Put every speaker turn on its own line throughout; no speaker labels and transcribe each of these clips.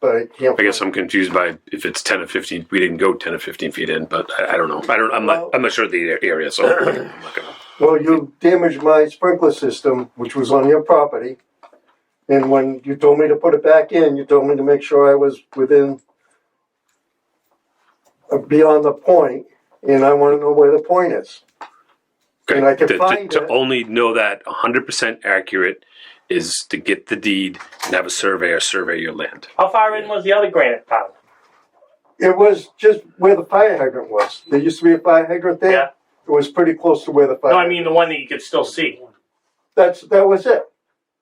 but I can't.
I guess I'm confused by if it's ten or fifteen. We didn't go ten or fifteen feet in, but I, I don't know. I don't. I'm
Well-
not. I'm not sure of the a- area, so I'm not gonna.
Well, you damaged my sprinkler system, which was on your property. And when you told me to put it back in, you told me to make sure I was within uh, beyond the point, and I want to know where the point is. And I can
to, to-
find
to
it.
only know that 100 percent accurate is to get the deed and have a surveyor survey your land.
How far in was the other granite pile?
It was just where the fire hydrant was. There used to be a fire hydrant there.
Yeah.
It was pretty close to where the fire.
No, I mean the one that you could still see.
that's that was it.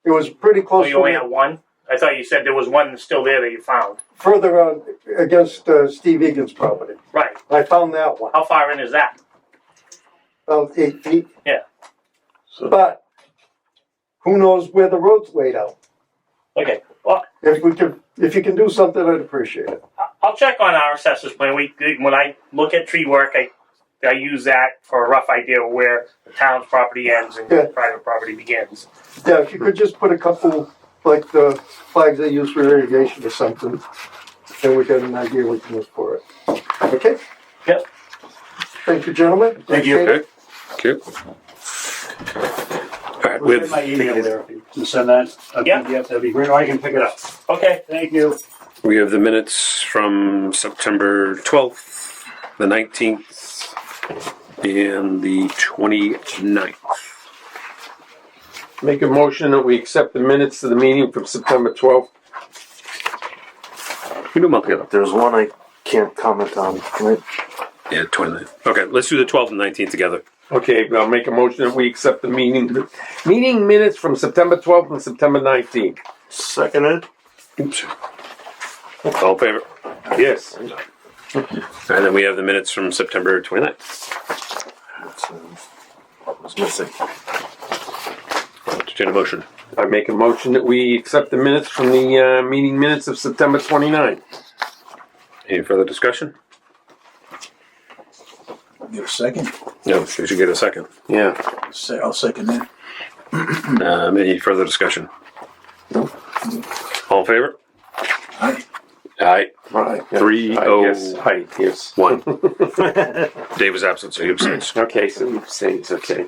It was pretty
Oh,
close.
you
to
only
where-
had one? I thought you said there was one still there that you found.
further on against uh, Steve Egan's property.
Right.
I found that one
How far in is that?
about eight feet.
Yeah.
But who knows where the road's laid out?
Okay. Well,
If we can, if you can do something, I'd appreciate it.
I- I'll check on our assessors plan. We when I look at tree work, I I use that for a rough idea of where the town's property ends and
Yeah.
private property begins.
Yeah, if you could just put a couple like the flags they use for irrigation or something, then we got an idea we can look for it. Okay.
Yep.
Thank you, gentlemen.
Thank you.
Appreciate it.
Okay. All right.
We'll get
With
my email there. If you can send that a
Yeah.
PDF, that'd be great. Or
Oh,
I can pick it up.
Okay.
Thank you.
we have the minutes from September 12th, the 19th, and the 29th.
Make a motion that we accept the minutes of the meeting from September twelfth.
We do them all together.
There's one I can't comment on. Can I-
Yeah, 29th. Okay, let's do the 12th and 19th together.
Okay, I'll make a motion that we accept the meeting, meeting minutes from September twelfth and September nineteenth.
Second it?
Oops. All in favor.
Yes.
And then we have the minutes from September 29th.
That's, um, what was missing.
Entertain a motion.
I make a motion that we accept the minutes from the, uh, meeting minutes of September twenty-ninth.
Any further discussion?
Get a second.
No, we should get a second.
Yeah.
Se- I'll second that.
Um, any further discussion? All in favor?
Aye.
Aye.
Aye.
Three
Aye,
oh-
yes. Aye, yes.
One. Dave was absent, so he abstains.
Okay, so we say it's okay.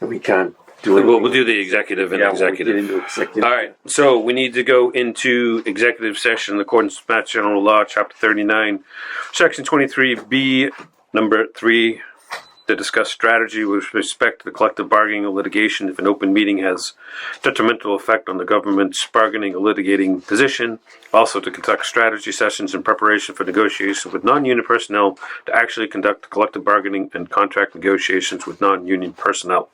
We can't do it.
We'll, we'll do the executive and executive. All right, so we need to go into executive session in accordance with Mass General Law, Chapter 39, Section 23B, Number 3, to discuss strategy with respect to the collective bargaining or litigation if an open meeting has detrimental effect on the government's bargaining or litigating position. Also, to conduct strategy sessions in preparation for negotiations with non-union personnel to actually conduct collective bargaining and contract negotiations with non-union personnel.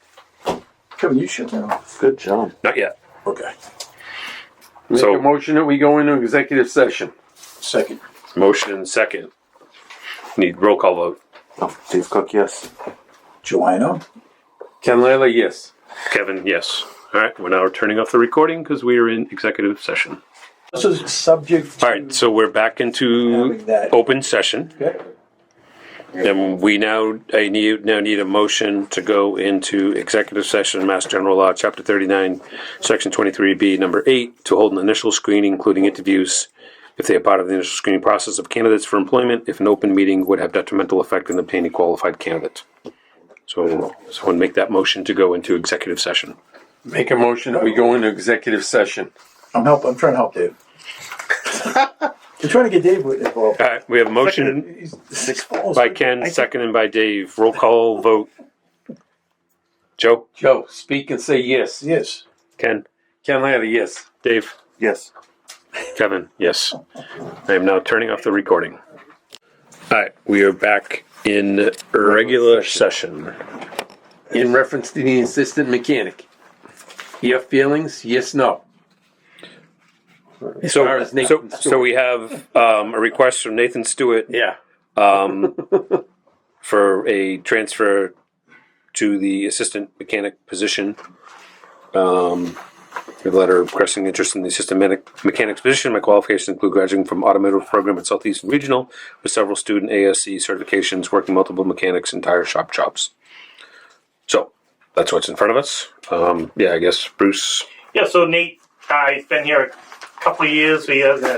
Kevin, you shut that off.
Good job.
Not yet.
Okay.
Make
So-
a motion that we go into executive session.
Second.
Motion and second. Need roll call vote.
Oh, Dave Cook, yes.
Joanna?
Ken Lila, yes.
Kevin, yes. All right, we're now turning off the recording because we are in executive session.
This is subject
All right, so we're back into
Having that.
open session.
Okay.
And we now, I need, now need a motion to go into executive session, Mass General Law, Chapter thirty-nine, Section twenty-three B, number eight, to hold an initial screening, including interviews, if they are part of the initial screening process of candidates for employment, if an open meeting would have detrimental effect in obtaining qualified candidate. So, someone make that motion to go into executive session.
Make a motion that we go into executive session.
I'm help. I'm trying to help Dave. I'm trying to get Dave involved.
All right, Uh, we have a motion
He's six balls.
by Ken, seconded by Dave, roll call, vote. Joe,
Joe, speak and say yes.
Yes.
Ken,
Ken Lila, yes.
Dave.
Yes.
Kevin, yes. I am now turning off the recording. All right, we are back in regular session.
In reference to the assistant mechanic. Your feelings, yes, no. As
So,
far as Nathan
so,
Stewart.
so we have um, a request from Nathan Stewart
Yeah.
um, for a transfer to the assistant mechanic position. Um, we have a letter expressing interest in the assistant mechanic- mechanic's position. My qualifications include graduating from automotive program at Southeast Regional with several student ASC certifications, working multiple mechanics and tire shop jobs. So that's what's in front of us. Um, yeah, I guess Bruce
Yeah. So Nate, uh, he's been here a couple of years. He has a